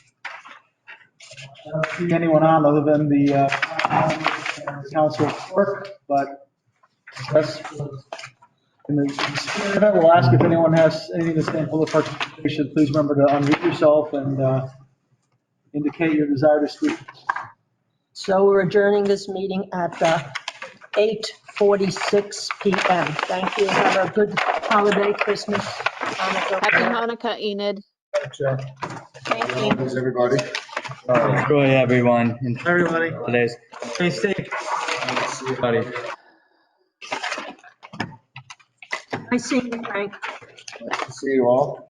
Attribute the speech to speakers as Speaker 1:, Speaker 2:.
Speaker 1: I don't see anyone on other than the uh, council clerk, but that's in the spirit of it, we'll ask if anyone has anything to say in public participation. Please remember to unmute yourself and uh, indicate your desire to speak.
Speaker 2: So we're adjourning this meeting at uh, 8:46 PM. Thank you. Have a good holiday, Christmas, Hanukkah.
Speaker 3: Happy Hanukkah, Enid.
Speaker 2: Thank you.
Speaker 4: Thanks, everybody.
Speaker 5: Enjoy everyone in
Speaker 1: Everybody,
Speaker 5: today's,
Speaker 1: stay safe.
Speaker 5: buddy.
Speaker 2: Nice seeing you, Frank.
Speaker 4: See you all.